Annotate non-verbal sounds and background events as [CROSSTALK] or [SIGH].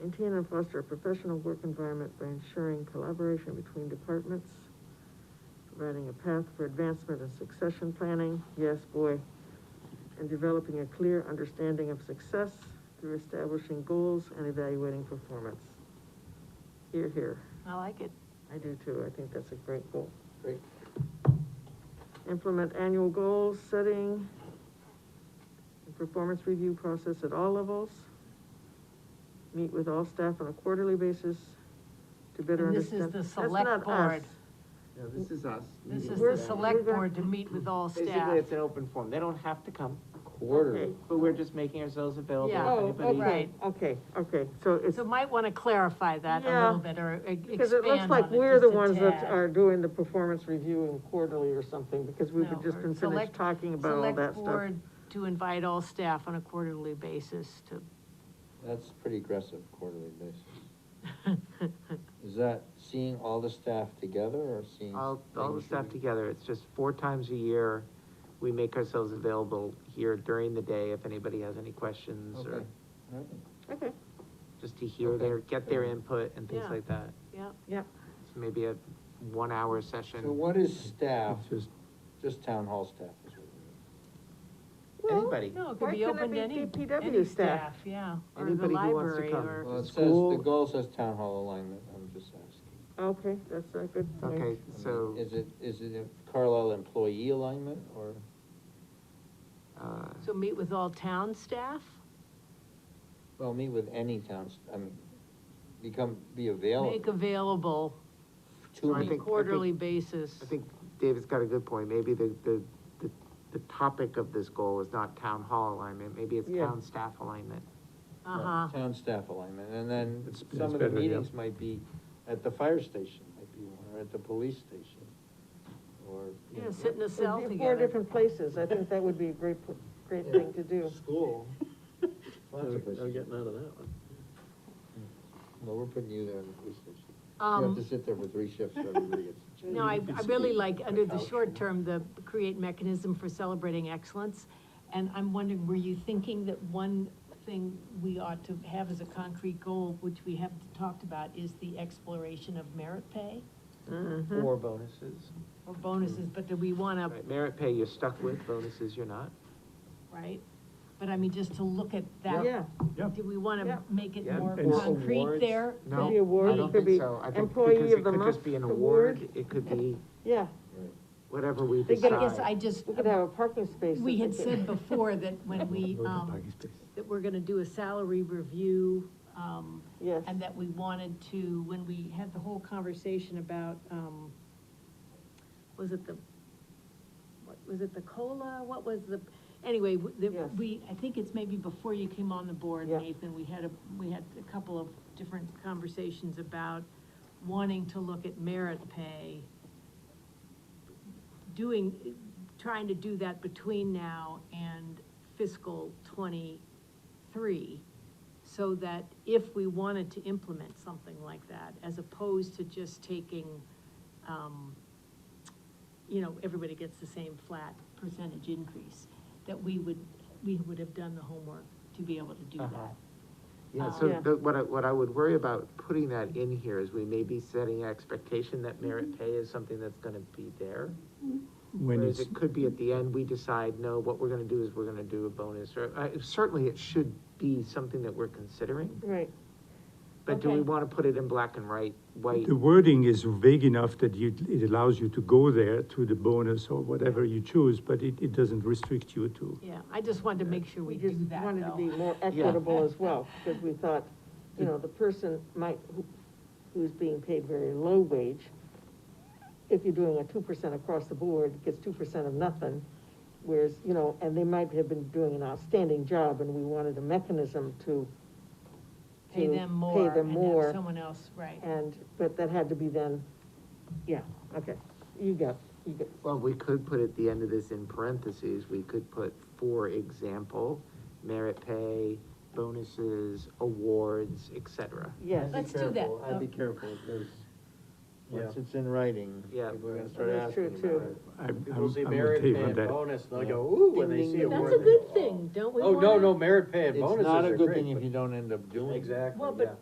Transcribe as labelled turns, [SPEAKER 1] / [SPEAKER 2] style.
[SPEAKER 1] maintain and foster a professional work environment by ensuring collaboration between departments, providing a path for advancement and succession planning, yes, boy, and developing a clear understanding of success through establishing goals and evaluating performance. Here, here,
[SPEAKER 2] I like it.
[SPEAKER 1] I do too, I think that's a great goal.
[SPEAKER 3] Great.
[SPEAKER 1] Implement annual goals, setting, and performance review process at all levels. Meet with all staff on a quarterly basis to better
[SPEAKER 2] And this is
[SPEAKER 1] understand.
[SPEAKER 2] the
[SPEAKER 1] That's
[SPEAKER 2] select
[SPEAKER 1] not
[SPEAKER 2] board.
[SPEAKER 1] us.
[SPEAKER 3] Yeah, this is us.
[SPEAKER 2] This is
[SPEAKER 1] We're-
[SPEAKER 2] the
[SPEAKER 1] we're
[SPEAKER 2] select
[SPEAKER 1] gonna-
[SPEAKER 2] board to meet with all
[SPEAKER 4] Basically,
[SPEAKER 2] staff.
[SPEAKER 4] it's an open forum, they don't have to come,
[SPEAKER 1] Okay.
[SPEAKER 3] Quarterly.
[SPEAKER 4] but we're just making ourselves available
[SPEAKER 2] Yeah.
[SPEAKER 4] if
[SPEAKER 1] Oh,
[SPEAKER 4] anybody.
[SPEAKER 1] okay,
[SPEAKER 2] Right.
[SPEAKER 1] okay, okay, so it's,
[SPEAKER 2] So might wanna clarify that a
[SPEAKER 1] Yeah.
[SPEAKER 2] little bit, or e- expand on it
[SPEAKER 1] because it looks like we're the
[SPEAKER 2] just a
[SPEAKER 1] ones that
[SPEAKER 2] tad.
[SPEAKER 1] are doing the performance review in quarterly or something, because we've
[SPEAKER 2] No,
[SPEAKER 1] just
[SPEAKER 2] or
[SPEAKER 1] been finished
[SPEAKER 2] select-
[SPEAKER 1] talking about all that
[SPEAKER 2] Select
[SPEAKER 1] stuff.
[SPEAKER 2] board to invite all staff on a quarterly basis to,
[SPEAKER 3] That's pretty aggressive quarterly basis. Is that seeing all the staff together or seeing?
[SPEAKER 4] All, all the
[SPEAKER 3] things
[SPEAKER 4] stuff
[SPEAKER 3] you-
[SPEAKER 4] together, it's just four times a year, we make ourselves available here during the day if anybody has any questions or
[SPEAKER 3] Okay. Alright.
[SPEAKER 1] Okay,
[SPEAKER 4] just to hear
[SPEAKER 3] Okay.
[SPEAKER 4] their, get their input and things
[SPEAKER 2] Yeah.
[SPEAKER 4] like that.
[SPEAKER 2] yeah,
[SPEAKER 1] yeah,
[SPEAKER 4] It's maybe a one-hour session.
[SPEAKER 3] So what is staff,
[SPEAKER 4] It's just-
[SPEAKER 3] just town hall staff? is what we
[SPEAKER 1] Well,
[SPEAKER 4] Anybody,
[SPEAKER 2] no, it
[SPEAKER 1] Why
[SPEAKER 2] could be
[SPEAKER 1] couldn't it
[SPEAKER 2] open to
[SPEAKER 1] be
[SPEAKER 2] any,
[SPEAKER 1] DPW
[SPEAKER 2] any
[SPEAKER 1] staff?
[SPEAKER 2] staff, yeah, or the
[SPEAKER 4] Anybody who wants to
[SPEAKER 2] library,
[SPEAKER 4] come.
[SPEAKER 3] need. Well,
[SPEAKER 2] or,
[SPEAKER 3] it says, the
[SPEAKER 4] School-
[SPEAKER 3] goal says town hall alignment, I'm just asking.
[SPEAKER 1] okay, that's a good point.
[SPEAKER 4] okay,
[SPEAKER 3] I mean,
[SPEAKER 4] so,
[SPEAKER 3] Is it, is it a Carlisle employee alignment or?
[SPEAKER 4] uh,
[SPEAKER 2] so meet with all town staff?
[SPEAKER 3] Well, meet with any towns, I mean, become, be
[SPEAKER 2] Make
[SPEAKER 3] available
[SPEAKER 2] available
[SPEAKER 4] I
[SPEAKER 3] to
[SPEAKER 2] on a
[SPEAKER 3] me.
[SPEAKER 4] think-
[SPEAKER 2] quarterly basis.
[SPEAKER 4] I think David's got a good point, maybe the, the, the, the topic of this goal is not town hall alignment, maybe it's
[SPEAKER 1] Yeah.
[SPEAKER 4] town staff alignment.
[SPEAKER 2] Uh-huh,
[SPEAKER 3] Town staff alignment, and then
[SPEAKER 5] It's-
[SPEAKER 3] some
[SPEAKER 5] it's
[SPEAKER 3] of the
[SPEAKER 5] better, yeah.
[SPEAKER 3] meetings might be at the fire station, might be one, or at the police station, or. you
[SPEAKER 2] yeah,
[SPEAKER 3] know,
[SPEAKER 2] sit in a
[SPEAKER 1] It'd
[SPEAKER 2] cell
[SPEAKER 1] be Four
[SPEAKER 2] together.
[SPEAKER 1] different places, I think that would be a great, great thing to do.
[SPEAKER 3] School.
[SPEAKER 2] [LAUGHS]
[SPEAKER 3] Lots of
[SPEAKER 5] I'm
[SPEAKER 3] places.
[SPEAKER 5] getting out of that one.
[SPEAKER 3] Well, we're putting you there in the police station. You have
[SPEAKER 2] Um,
[SPEAKER 3] to sit there for three shifts, so everybody
[SPEAKER 2] [LAUGHS]
[SPEAKER 3] gets.
[SPEAKER 2] No, I, I really like, under the
[SPEAKER 3] Couch.
[SPEAKER 2] short term, the create mechanism for celebrating excellence. And I'm wondering, were you thinking that one thing we ought to have as a concrete goal, which we haven't talked about, is the exploration of merit pay Uh-huh.
[SPEAKER 4] Or bonuses.
[SPEAKER 2] or bonuses, but that we wanna,
[SPEAKER 4] Right, Merit pay you're stuck with, bonuses you're not.
[SPEAKER 2] right? But I mean, just to look at
[SPEAKER 1] Yeah,
[SPEAKER 2] that,
[SPEAKER 5] Yeah.
[SPEAKER 2] do we
[SPEAKER 1] Yeah.
[SPEAKER 2] wanna make it
[SPEAKER 4] Yeah,
[SPEAKER 2] more
[SPEAKER 5] and-
[SPEAKER 2] concrete
[SPEAKER 5] Awards?
[SPEAKER 2] there?
[SPEAKER 4] No,
[SPEAKER 1] Could be award,
[SPEAKER 4] I don't
[SPEAKER 1] it could
[SPEAKER 4] think
[SPEAKER 1] be
[SPEAKER 4] so. I think
[SPEAKER 1] employee
[SPEAKER 4] because
[SPEAKER 1] of
[SPEAKER 4] it
[SPEAKER 1] the
[SPEAKER 4] could just
[SPEAKER 1] month
[SPEAKER 4] be an
[SPEAKER 1] award.
[SPEAKER 4] award, it could be
[SPEAKER 1] yeah,
[SPEAKER 3] Right.
[SPEAKER 4] whatever we
[SPEAKER 1] They
[SPEAKER 2] I
[SPEAKER 1] get-
[SPEAKER 2] guess
[SPEAKER 4] decide.
[SPEAKER 2] I just,
[SPEAKER 1] we could have a parking space.
[SPEAKER 2] we
[SPEAKER 1] that
[SPEAKER 2] had
[SPEAKER 1] they
[SPEAKER 2] said
[SPEAKER 1] could-
[SPEAKER 2] before that when we, um, that we're gonna do a salary review, um,
[SPEAKER 1] Yes,
[SPEAKER 2] and that we wanted to, when we had the whole conversation about, um, was it the, what, was it the COLA, what was the, anyway, w- the-
[SPEAKER 1] Yes.
[SPEAKER 2] we, I think it's maybe before you came on the board,
[SPEAKER 1] Yeah.
[SPEAKER 2] Nathan, we had a, we had a couple of different conversations about wanting to look at merit pay, doing, trying to do that between now and fiscal twenty-three, so that if we wanted to implement something like that, as opposed to just taking, um, you know, everybody gets the same flat percentage increase, that we would, we would have done the homework to be able to do
[SPEAKER 4] Uh-huh.
[SPEAKER 2] that.
[SPEAKER 4] Yeah,
[SPEAKER 1] Yeah.
[SPEAKER 4] so the, what I, what I would worry about putting that in here is we may be setting an expectation that
[SPEAKER 1] Mm-hmm.
[SPEAKER 4] merit pay is something that's gonna be there.
[SPEAKER 5] When
[SPEAKER 4] Whereas
[SPEAKER 5] it's,
[SPEAKER 4] it could be at the end, we decide, no, what we're gonna do is we're gonna do a bonus, or, uh, certainly it should be something that we're considering.
[SPEAKER 1] right,
[SPEAKER 4] But do we
[SPEAKER 2] Okay.
[SPEAKER 4] wanna put it in black and white, white?
[SPEAKER 5] the wording is vague enough that you, it allows you to go there to the bonus or whatever you choose, but it, it doesn't restrict you to.
[SPEAKER 2] Yeah, I just wanted to make sure
[SPEAKER 1] we
[SPEAKER 2] we
[SPEAKER 1] just
[SPEAKER 2] do that,
[SPEAKER 1] wanted to
[SPEAKER 2] though.
[SPEAKER 1] be more equitable as well, because we thought, you know, the person might, who, who's being paid very low wage, if you're doing a two percent across the board, gets two percent of nothing, whereas, you know, and they might have been doing an outstanding job, and we wanted a mechanism to
[SPEAKER 2] Pay
[SPEAKER 1] to
[SPEAKER 2] them more
[SPEAKER 1] them
[SPEAKER 2] and
[SPEAKER 1] more.
[SPEAKER 2] have someone else, right.
[SPEAKER 1] And, but that had to be then, yeah, okay, you got, you got,
[SPEAKER 4] Well, we could put at the end of this in parentheses, we could put, for example, merit pay, bonuses, awards, et cetera.
[SPEAKER 1] yes.
[SPEAKER 2] Let's do that.
[SPEAKER 3] I'd be careful, because once it's in writing,
[SPEAKER 4] Yeah.
[SPEAKER 3] people are gonna start
[SPEAKER 1] That's
[SPEAKER 3] asking
[SPEAKER 1] true,
[SPEAKER 3] about
[SPEAKER 1] too.
[SPEAKER 3] it.
[SPEAKER 5] I'm,
[SPEAKER 3] People
[SPEAKER 5] I'm
[SPEAKER 3] see
[SPEAKER 5] I'm with
[SPEAKER 3] merit
[SPEAKER 5] Dave
[SPEAKER 3] pay
[SPEAKER 5] on
[SPEAKER 3] and
[SPEAKER 5] that.
[SPEAKER 3] bonus, and they go, ooh, when they
[SPEAKER 4] Ding,
[SPEAKER 3] see
[SPEAKER 4] ding,
[SPEAKER 3] a
[SPEAKER 4] ding.
[SPEAKER 3] word.
[SPEAKER 2] That's a
[SPEAKER 3] they
[SPEAKER 2] good
[SPEAKER 3] go,
[SPEAKER 2] thing, don't we
[SPEAKER 3] Oh,
[SPEAKER 2] want
[SPEAKER 3] no, no, merit pay and
[SPEAKER 4] It's
[SPEAKER 3] bonuses
[SPEAKER 4] not a
[SPEAKER 3] are
[SPEAKER 4] good thing
[SPEAKER 3] great.
[SPEAKER 4] if you don't end up doing it.
[SPEAKER 3] Exactly,
[SPEAKER 2] Well, but-
[SPEAKER 3] yeah.
[SPEAKER 2] yeah.